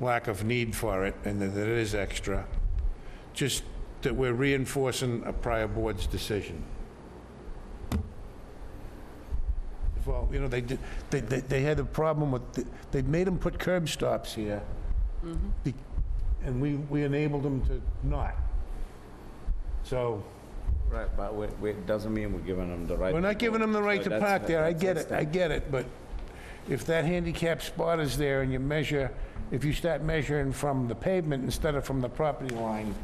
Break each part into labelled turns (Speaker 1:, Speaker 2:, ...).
Speaker 1: lack of need for it and that it is extra. Just that we're reinforcing a prior board's decision. Well, you know, they did, they, they, they had a problem with, they made them put curb stops here. Be- And we, we enabled them to not. So,
Speaker 2: Right, but we, we, it doesn't mean we're giving them the right.
Speaker 1: we're not giving them the right
Speaker 2: So
Speaker 1: to
Speaker 2: that's-
Speaker 1: park there, I
Speaker 2: that's-
Speaker 1: get
Speaker 2: that's
Speaker 1: it, I
Speaker 2: the-
Speaker 1: get it, but if that handicap spot is there and you measure, if you start measuring from the pavement instead of from the property line,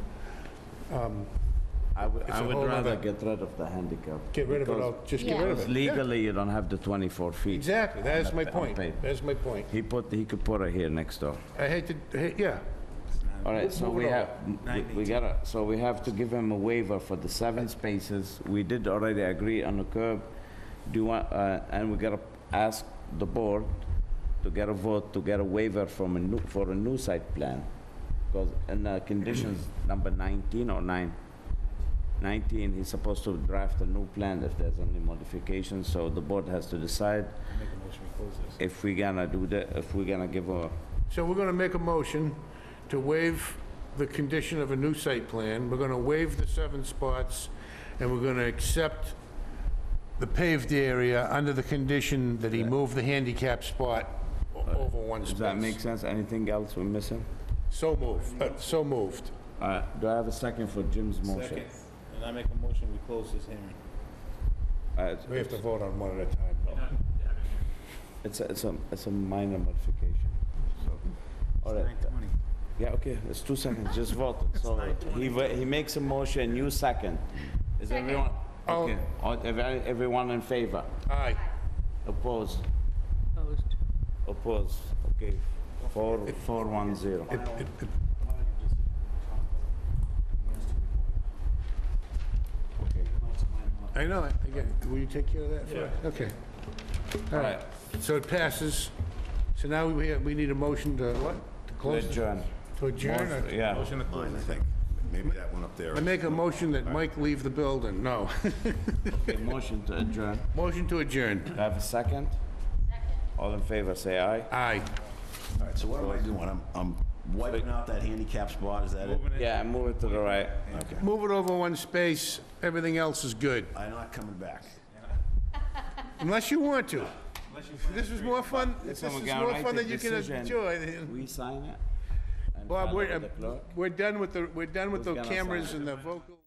Speaker 2: I would,
Speaker 1: it's
Speaker 2: I
Speaker 1: a
Speaker 2: would
Speaker 1: whole
Speaker 2: rather
Speaker 1: other-
Speaker 2: get rid of the handicap.
Speaker 1: get rid of it,
Speaker 2: because-
Speaker 1: all. just get
Speaker 3: Yeah.
Speaker 1: rid of
Speaker 2: Because
Speaker 1: it. Yeah,
Speaker 2: legally, you don't have the 24 feet.
Speaker 1: Exactly, that is my
Speaker 2: On
Speaker 1: point,
Speaker 2: pavement.
Speaker 1: that is my point.
Speaker 2: He put, he could put it here next door.
Speaker 1: I hate to, hate- yeah,
Speaker 2: All right, so we
Speaker 1: it
Speaker 2: have, we- we gotta, so we have to give him a waiver for the seven spaces. We did already agree on the curb. Do you want, uh, and we gotta ask the board to get a vote, to get a waiver from a new, for a new site plan. Because in uh, conditions number 19 or 9, 19, he's supposed to draft a new plan if there's any modifications, so the board has to decide if we gonna do that, if we gonna give a,
Speaker 1: So we're gonna make a motion to waive the condition of a new site plan, we're gonna waive the seven spots, and we're gonna accept the paved area under the condition that he move the handicap spot o- over one
Speaker 2: does that make
Speaker 1: space.
Speaker 2: sense? Anything else we're missing?
Speaker 1: So moved, uh, so moved.
Speaker 2: All right, do I have a second for Jim's motion?
Speaker 4: Second, and I make a motion, we close this hearing.
Speaker 2: All right,
Speaker 1: We have to vote on one at a time, though.
Speaker 2: It's, a- it's a, it's a minor modification. All right, yeah, okay, it's two seconds, just vote. So he, wa- he makes a motion, you second. Is everyone,
Speaker 1: Oh.
Speaker 2: okay, all- ev- everyone in favor?
Speaker 1: Aye,
Speaker 2: Opposed? Opposed, okay. Four, four, one, zero.
Speaker 1: I know, it. again, will you take care of that for us? Okay. All right, so it passes, so now we, we need a motion to what? To close? it?
Speaker 2: Adjourn.
Speaker 1: To adjourn or?
Speaker 2: Yeah.
Speaker 5: Mine, I think. Maybe that one up there.
Speaker 1: I make a motion that Mike leave the building, no.
Speaker 2: Okay, motion to adjourn.
Speaker 1: Motion to adjourn.
Speaker 2: Do I have a second? Second. All in favor, say aye.
Speaker 1: Aye.
Speaker 5: All right, so what am I doing? I'm, I'm wiping out that handicap spot, is that it?
Speaker 2: Yeah, move it to the right.
Speaker 5: Okay.
Speaker 1: Move it over one space, everything else is good,
Speaker 5: I'm not coming back.
Speaker 1: unless you want to. This is more fun, this is
Speaker 2: Someone gotta
Speaker 1: more
Speaker 2: write
Speaker 1: fun
Speaker 2: the
Speaker 1: than you can
Speaker 2: decision.
Speaker 1: enjoy.
Speaker 2: We sign it? and
Speaker 1: Bob,
Speaker 2: file it
Speaker 1: we're, um,
Speaker 2: with the clerk?
Speaker 1: we're done with the, we're done with
Speaker 2: Who's
Speaker 1: the
Speaker 2: gonna sign
Speaker 1: cameras
Speaker 2: it?
Speaker 1: and the vocal.